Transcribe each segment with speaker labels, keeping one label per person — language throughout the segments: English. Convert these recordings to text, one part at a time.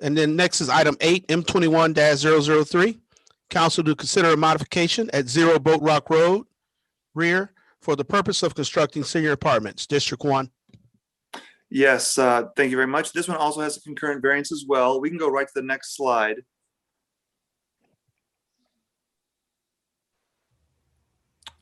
Speaker 1: And then next is item eight, M twenty-one 3 Council to consider a modification at Zero Boat Rock Road rear for the purpose of constructing senior apartments, District One.
Speaker 2: Yes, uh, thank you very much. This one also has a concurrent variance as well. We can go right to the next slide.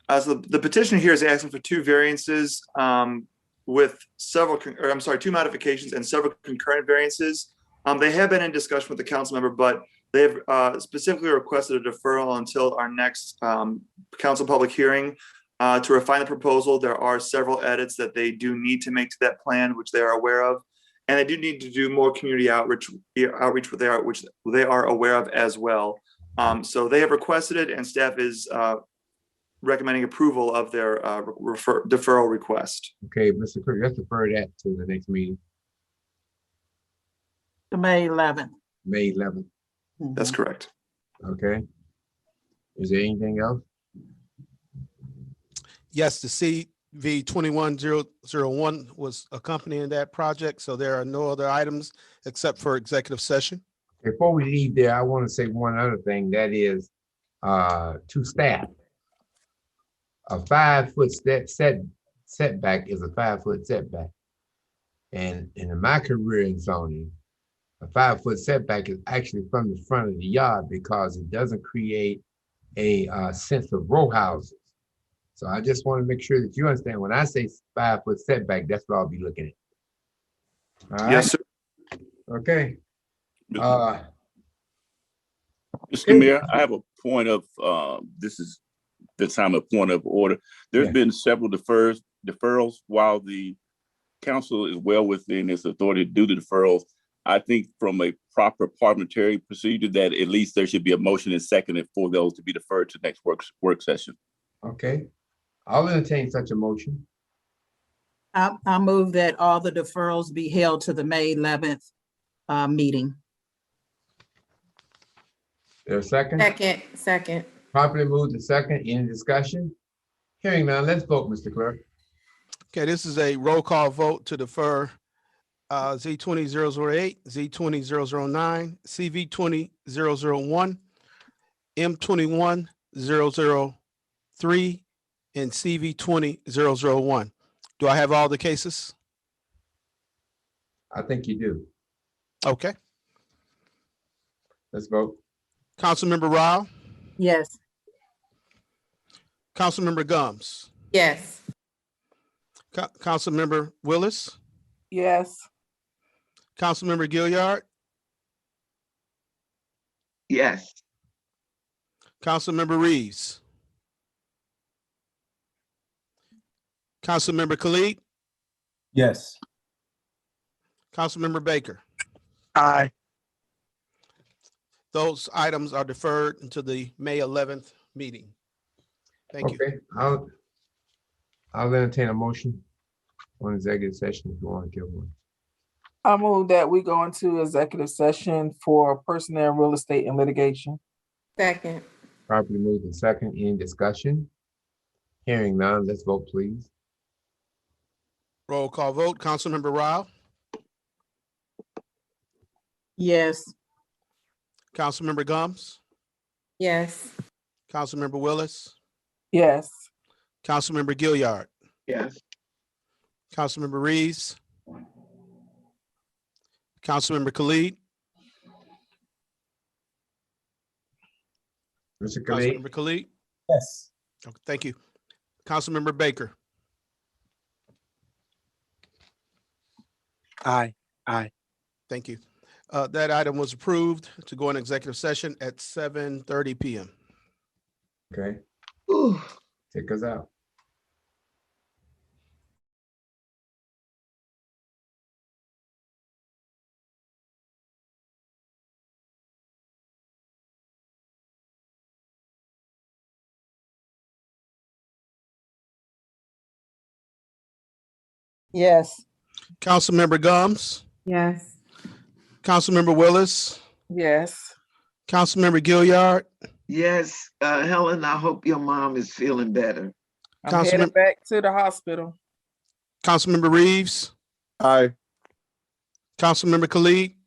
Speaker 2: Uh, so the petition here is asking for two variances um, with several, con- or I'm sorry, two modifications and several concurrent variances. Um, They have been in discussion with the council member, but they have uh, specifically requested a deferral until our next um, council public hearing. Uh, to refine the proposal, there are several edits that they do need to make to that plan, which they are aware of. And they do need to do more community outreach, outreach, with they are, which they are aware of as well. Um, so they have requested it and staff is, uh, recommending approval of their, uh, refer, deferral request.
Speaker 3: Okay, Mr. Kirk, let's defer that to the next meeting,
Speaker 4: to May eleventh.
Speaker 3: May eleventh,
Speaker 2: That's correct.
Speaker 3: okay? Is there anything else?
Speaker 1: Yes, the CV twenty-one zero zero one was accompanying that project, so there are no other items except for executive session.
Speaker 3: Before we leave there, I want to say one other thing, that is, uh, to staff. A five-foot set, set, setback is a five-foot setback. And, and in my career in zoning, a five-foot setback is actually from the front of the yard because it doesn't create a, uh, sense of row houses. So I just want to make sure that you understand, when I say five-foot setback, that's what I'll be looking at. All right?
Speaker 2: Yes, sir.
Speaker 3: Okay.
Speaker 5: Mr.
Speaker 3: Uh,
Speaker 5: Mr. Mayor, I have a point of, uh, this is the time of point of order. There's
Speaker 3: Yeah.
Speaker 5: been several defers, deferrals while the council is well within its authority to do the deferrals. I think from a proper parliamentary procedure that at least there should be a motion and second for those to be deferred to next work, work session.
Speaker 3: Okay, I'll entertain such a motion.
Speaker 4: I, I move that all the deferrals be held to the May eleventh, uh, meeting.
Speaker 3: There a second?
Speaker 6: Second, second.
Speaker 3: Properly moved to second, any discussion? Hearing none, let's vote, Mr. Clerk.
Speaker 1: Okay, this is a roll call vote to defer uh, Z twenty zero zero eight, Z twenty zero zero nine, CV twenty zero zero one, M twenty-one zero zero three, and CV twenty zero zero one. Do I have all the cases?
Speaker 3: I think you do.
Speaker 1: Okay.
Speaker 3: Let's vote.
Speaker 1: Councilmember Rao,
Speaker 4: Yes.
Speaker 1: Councilmember Gums,
Speaker 6: Yes.
Speaker 1: Co- Councilmember Willis,
Speaker 6: Yes.
Speaker 1: Councilmember Gilliard,
Speaker 7: Yes,
Speaker 1: Councilmember Reeves. Councilmember Khalid.
Speaker 8: Yes.
Speaker 1: Councilmember Baker.
Speaker 8: Aye.
Speaker 1: Those items are deferred until the May eleventh meeting. Thank you.
Speaker 3: Okay, I'll, I'll entertain a motion on executive session if you want to give one.
Speaker 9: I move that we go into executive session for personnel, real estate and litigation.
Speaker 6: Second,
Speaker 3: Properly moved to second, any discussion? Hearing none, let's vote, please.
Speaker 1: Roll call vote. Councilmember Rao,
Speaker 4: Yes.
Speaker 1: Councilmember Gums,
Speaker 6: yes.
Speaker 1: Councilmember Willis,
Speaker 9: Yes.
Speaker 1: Councilmember Gilliard,
Speaker 7: yes,
Speaker 1: Councilmember Reeves, Councilmember Khalid,
Speaker 3: Mr. Khalid,
Speaker 1: Councilmember Khalid.
Speaker 8: Yes.
Speaker 1: Okay, Thank you. Councilmember Baker,
Speaker 8: Aye. Aye.
Speaker 1: thank you. Uh, that item was approved to go in executive session at seven thirty PM.
Speaker 3: okay,
Speaker 7: Ooh.
Speaker 3: take us out.
Speaker 9: Yes.
Speaker 1: Councilmember Gums,
Speaker 6: Yes.
Speaker 1: Councilmember Willis,
Speaker 9: Yes.
Speaker 1: Councilmember Gilliard,
Speaker 7: yes. Uh, Helen, I hope your mom is feeling better.
Speaker 9: I'm headed
Speaker 1: Councilman-
Speaker 9: back to the hospital.
Speaker 1: Councilmember Reeves,
Speaker 8: Aye.
Speaker 1: Councilmember Khalid,